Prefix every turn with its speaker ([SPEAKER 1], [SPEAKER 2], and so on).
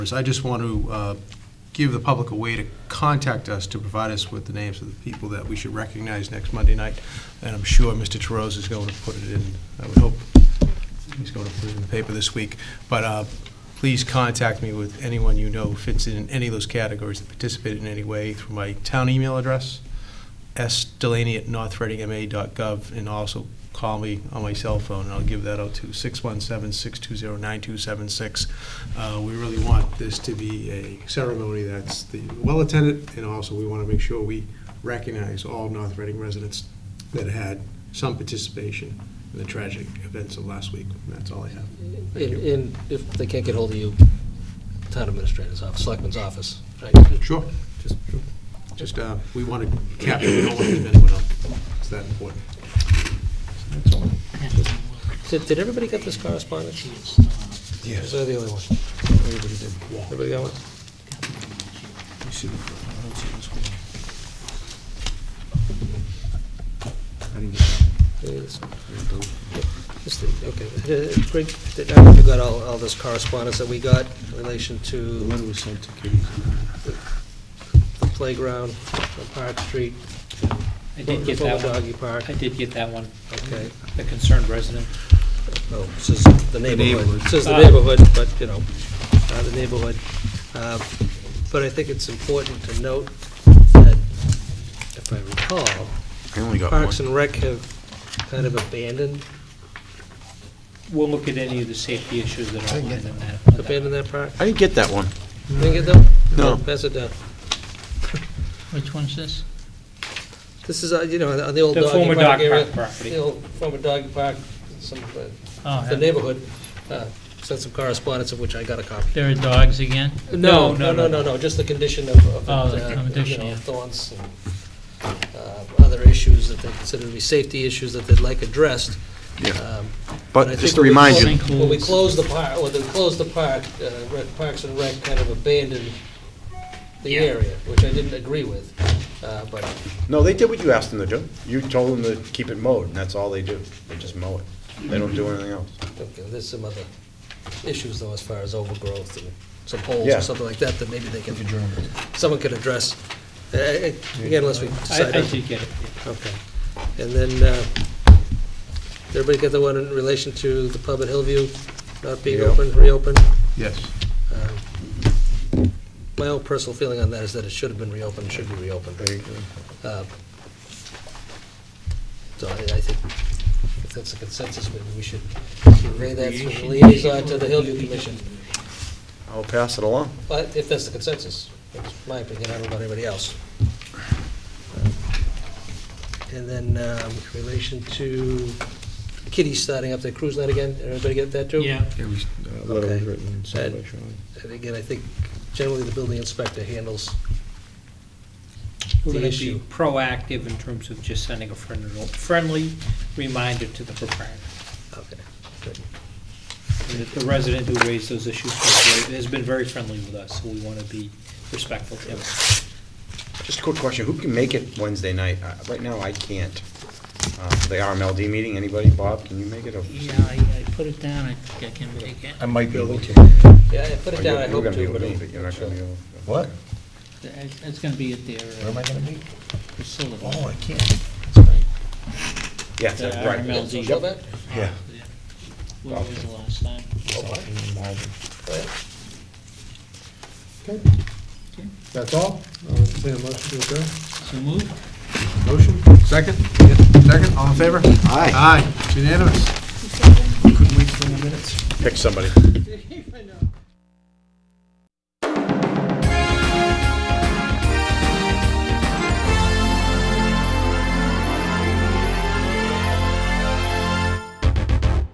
[SPEAKER 1] I just want to uh, give the public a way to contact us, to provide us with the names of the people that we should recognize next Monday night, and I'm sure Mr. Terose is going to put it in, I would hope he's going to put it in the paper this week, but uh, please contact me with anyone you know fits in any of those categories that participate in any way through my town email address, sdelaney@northreadingma.gov, and also call me on my cell phone, and I'll give that out to 617-620-9276. Uh, We really want this to be a ceremony that's the well-attended, and also we want to make sure we recognize all North Reading residents that had some participation in the tragic events of last week. And That's all I have. Thank
[SPEAKER 2] And,
[SPEAKER 1] you.
[SPEAKER 2] and if they can't get hold of you, town administrator's office, selectman's office, right?
[SPEAKER 1] Sure. Just, just, uh, we want to capture, we don't want to leave anyone out. It's that important. That's all.
[SPEAKER 2] Did, did everybody get this correspondence? Was I the only one? Everybody did. Everybody got one? Yeah, this one. Yep, this thing, Okay, Uh, Greg, did- I hope you got all, all this correspondence that we got in relation
[SPEAKER 3] The
[SPEAKER 2] to
[SPEAKER 3] letter was sent to Katie.
[SPEAKER 2] the playground on Park Street,
[SPEAKER 4] I did get that one.
[SPEAKER 2] Doggy Park,
[SPEAKER 4] I did get that one,
[SPEAKER 2] okay.
[SPEAKER 4] the concerned resident.
[SPEAKER 2] Well, Oh, this is the neighborhood,
[SPEAKER 3] neighborhood.
[SPEAKER 2] this is the
[SPEAKER 4] Ah.
[SPEAKER 2] neighborhood, but, you know, uh, the neighborhood. Uh, But I think it's important to note that, if I recall,
[SPEAKER 5] I only got
[SPEAKER 2] Parks
[SPEAKER 5] one.
[SPEAKER 2] and Rec have kind of abandoned,
[SPEAKER 4] We'll look at any of the safety issues that are outlined in that.
[SPEAKER 2] abandoned that park.
[SPEAKER 5] I didn't get that one.
[SPEAKER 2] Think it though?
[SPEAKER 5] No.
[SPEAKER 2] Pass it down.
[SPEAKER 4] Which one's this?
[SPEAKER 2] This is, uh, you know, on the old
[SPEAKER 4] The
[SPEAKER 2] doggy
[SPEAKER 4] former
[SPEAKER 2] park
[SPEAKER 4] dog
[SPEAKER 2] area.
[SPEAKER 4] park
[SPEAKER 2] The
[SPEAKER 4] property.
[SPEAKER 2] old former doggy park, some, uh,
[SPEAKER 6] Oh,
[SPEAKER 2] the neighborhood, uh, sent some correspondence of which I got a copy.
[SPEAKER 6] there are dogs again?
[SPEAKER 2] No, no, no, no, no, just the condition of, of,
[SPEAKER 6] Oh,
[SPEAKER 2] uh,
[SPEAKER 6] the
[SPEAKER 2] you
[SPEAKER 6] condition,
[SPEAKER 2] know,
[SPEAKER 6] yeah.
[SPEAKER 2] thorns and uh, other issues that they consider to be safety issues that they'd like addressed.
[SPEAKER 5] Yeah.
[SPEAKER 2] Um, and I
[SPEAKER 5] But just
[SPEAKER 2] think
[SPEAKER 5] to
[SPEAKER 2] when we
[SPEAKER 5] remind you,
[SPEAKER 2] clo-
[SPEAKER 6] you-
[SPEAKER 2] When we
[SPEAKER 6] Sinkholes.
[SPEAKER 2] closed the park, when they closed the park, uh, Rec- Parks and Rec kind of abandoned the area, which I didn't agree with, uh, but
[SPEAKER 7] No, they did what you asked them to do. You told them to keep it mowed, and that's all they do. They just mow it. They don't do anything else.
[SPEAKER 2] Okay, there's some other issues though, as far as overgrowth and some holes
[SPEAKER 7] Yeah.
[SPEAKER 2] or something like that, that maybe they can, someone could address. Uh, uh, Again, unless we
[SPEAKER 4] I,
[SPEAKER 2] decide.
[SPEAKER 4] I
[SPEAKER 2] on-
[SPEAKER 4] did get it.
[SPEAKER 2] Okay. And then, uh, did everybody get the one in relation to the pub at Hillview not being
[SPEAKER 7] Yeah.
[SPEAKER 2] open, reopened?
[SPEAKER 1] Yes.
[SPEAKER 2] Um, My own personal feeling on that is that it should have been reopened, should be reopened. Uh, So I I think if that's the consensus, maybe we should convey that through the liaison to the Hillview Commission.
[SPEAKER 7] I'll pass it along.
[SPEAKER 2] But if that's the consensus, that's my opinion, I don't know about anybody else. And then um, in relation to Kitty's starting up their cruise night again, everybody get that too?
[SPEAKER 4] Yeah,
[SPEAKER 3] Yeah, we, uh, letter was
[SPEAKER 2] Okay.
[SPEAKER 3] written and sent by Sean.
[SPEAKER 2] And again, I think generally the building inspector handles
[SPEAKER 4] we're
[SPEAKER 2] the
[SPEAKER 4] gonna be
[SPEAKER 2] issue.
[SPEAKER 4] proactive in terms of just sending a friendly, friendly reminder to the proprietor.
[SPEAKER 2] Okay, good.
[SPEAKER 4] And that the resident who raised those issues was very- has been very friendly with us, so we wanna be respectful to him.
[SPEAKER 7] Just a quick question. Who can make it Wednesday night? Uh, Right now, I can't. Uh, The RMLD meeting, anybody? Bob, can you make it? Or-
[SPEAKER 6] Yeah, I, I put it down, I think I can make it.
[SPEAKER 8] I might be able to.
[SPEAKER 2] Yeah, I put it
[SPEAKER 7] or you-
[SPEAKER 2] down, I
[SPEAKER 7] you were
[SPEAKER 2] hope
[SPEAKER 7] gonna be
[SPEAKER 2] to,
[SPEAKER 7] able
[SPEAKER 2] but.
[SPEAKER 7] to, but You're not gonna be able to.
[SPEAKER 8] What?
[SPEAKER 6] It's, it's gonna be at their
[SPEAKER 8] Where am
[SPEAKER 6] uh,
[SPEAKER 8] I gonna meet?
[SPEAKER 6] facility.
[SPEAKER 8] Oh, I can't. That's right.
[SPEAKER 7] Yeah, that's
[SPEAKER 4] The
[SPEAKER 7] right.
[SPEAKER 4] RMLD.
[SPEAKER 2] Social event?
[SPEAKER 8] Yeah.
[SPEAKER 6] Uh, Where was the last time?
[SPEAKER 8] It's all in Marvin.
[SPEAKER 2] Oh, yeah.
[SPEAKER 3] That's all? I'll entertain a motion to adjourn.
[SPEAKER 6] So moved?
[SPEAKER 3] Motion, second? Second, all in favor?
[SPEAKER 7] Aye.
[SPEAKER 3] Aye, It's unanimous.
[SPEAKER 7] Pick somebody.